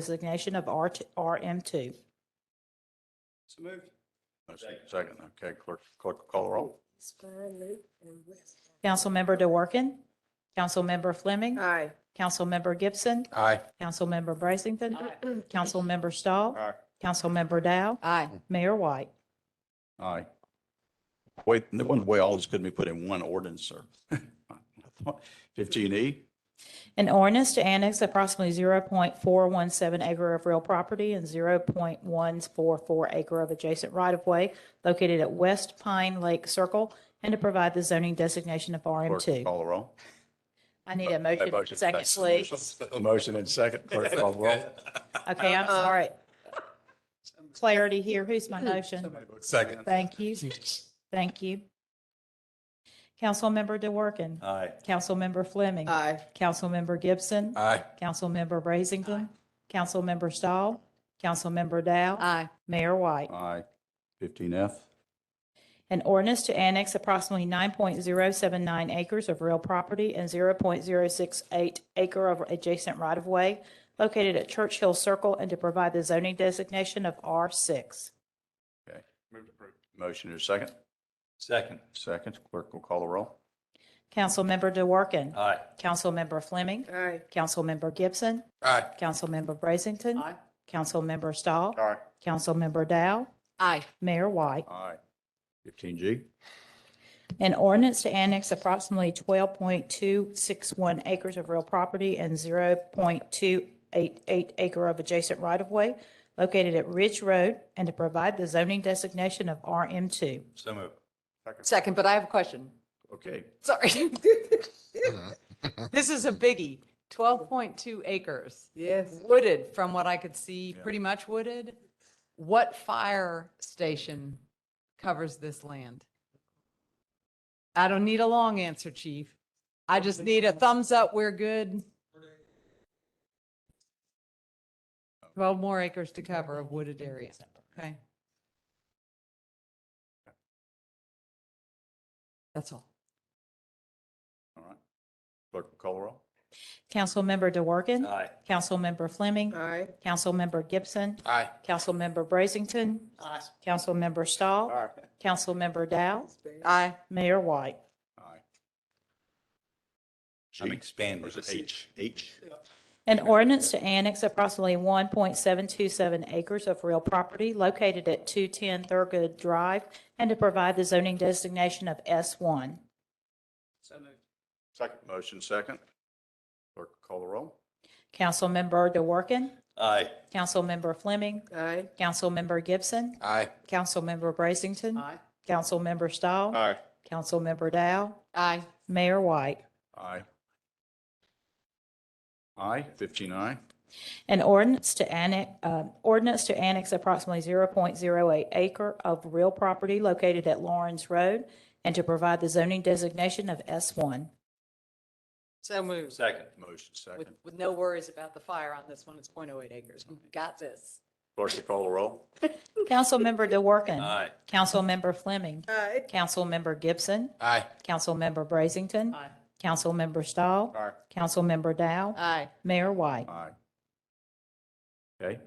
designation of R t- RM2. So moved. Second, okay, clerk, clerk call the roll. Spine, Luke, and West. Councilmember DeWorke, Councilmember Fleming, Aye. Councilmember Gibson, Aye. Councilmember Brazington, Councilmember Stahl, Aye. Councilmember Dow, Aye. Mayor White. Aye. Wait, no wonder why all this couldn't be put in one ordinance, sir. Fifteen E, An ordinance to annex approximately 0.417 acre of real property and 0.144 acre of adjacent right-of-way located at West Pine Lake Circle and to provide the zoning designation of clerk RM2. call the roll. I need a motion, motion, second, thanks. please. Motion and second, clerk call the roll. Okay, Uh, I'm sorry. Clarity here. Who's my motion? Second. Thank you. Thank you. Councilmember DeWorke, Aye. Councilmember Fleming, Aye. Councilmember Gibson, Aye. Councilmember Brazington, Councilmember Stahl, Councilmember Dow, Aye. Mayor White. Aye. Fifteen F, An ordinance to annex approximately 9.079 acres of real property and 0.068 acre of adjacent right-of-way located at Churchill Circle and to provide the zoning designation of R6. Moved approved. motion is second. Second. Second, clerk will call the roll. Councilmember DeWorke, Aye. Councilmember Fleming, Aye. Councilmember Gibson, Aye. Councilmember Brazington, Aye. Councilmember Stahl, Aye. Councilmember Dow, Aye. Mayor White. Aye. Fifteen G, An ordinance to annex approximately twelve point two six one acres of real property and zero point two eight eight acre of adjacent right-of-way located at Ridge Road and to provide the zoning designation of RM two. So moved. Second, but I have a question. okay. Sorry. This is a biggie. Twelve point two acres. Yes. wooded from what I could see, Yeah. pretty much wooded. What fire station covers this land? I don't need a long answer, chief. I just need a thumbs up. We're good. Twelve more acres to cover of wooded area. Okay. That's all. All right. Clerk will call the roll. Councilmember DeWorke, Aye. Councilmember Fleming, Aye. Councilmember Gibson, Aye. Councilmember Brazington, Aye. Councilmember Stahl, Aye. Councilmember Dow, Aye. Mayor White. Aye. I'm G, expanding. Or is it H? H? An ordinance to annex approximately 1.727 acres of real property located at 210 Thurgood Drive and to provide the zoning designation of S1. So moved. Second. Motion second. Clerk will call the roll. Councilmember DeWorke, Aye. Councilmember Fleming, Aye. Councilmember Gibson, Aye. Councilmember Brazington, Aye. Councilmember Stahl, Aye. Councilmember Dow, Aye. Mayor White. Aye. Aye, fifteen aye. An ordinance to annex, um, ordinance to annex approximately 0.08 acre of real property located at Lawrence Road and to provide the zoning designation of S1. So moved. Second. Motion With, second. with no worries about the fire on this one. It's 0.08 acres. We've Got this. Clerk will call the roll. Councilmember DeWorke. Aye. Councilmember Fleming. Aye. Councilmember Gibson. Aye. Councilmember Brazington. Aye. Councilmember Stahl. Aye. Councilmember Dow. Aye. Mayor White. Aye. Okay,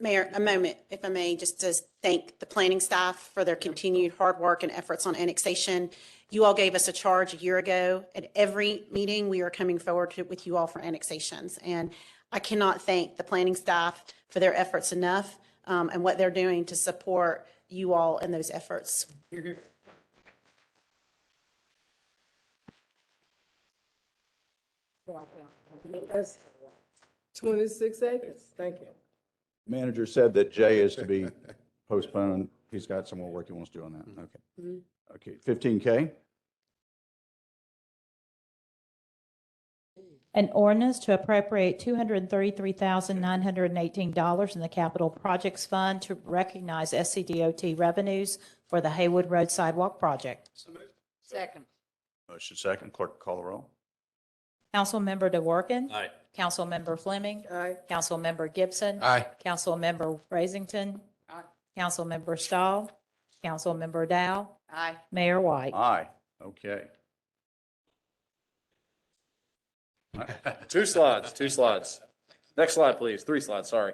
Mayor, a moment, if I may, just to thank the planning staff for their continued hard work and efforts on annexation. You all gave us a charge a year ago. At every meeting, we are coming forward to- with you all for annexations. And I cannot thank the planning staff for their efforts enough um, and what they're doing to support you all in those efforts. Twenty-six acres. Thank you. manager said that J is to be postponed. He's got some more work he wants to do on that. Okay. Mhm. Okay, fifteen K? An ordinance to appropriate $233,918 in the Capital Projects Fund to recognize SCDOT revenues for the Haywood Road Sidewalk Project. So moved. Second. Motion second. Clerk will call the roll. Councilmember DeWorke. Aye. Councilmember Fleming. Aye. Councilmember Gibson. Aye. Councilmember Brazington. Aye. Councilmember Stahl. Councilmember Dow. Aye. Mayor White. Aye, okay. Two slides, two slides. Next slide, please. Three slides, sorry.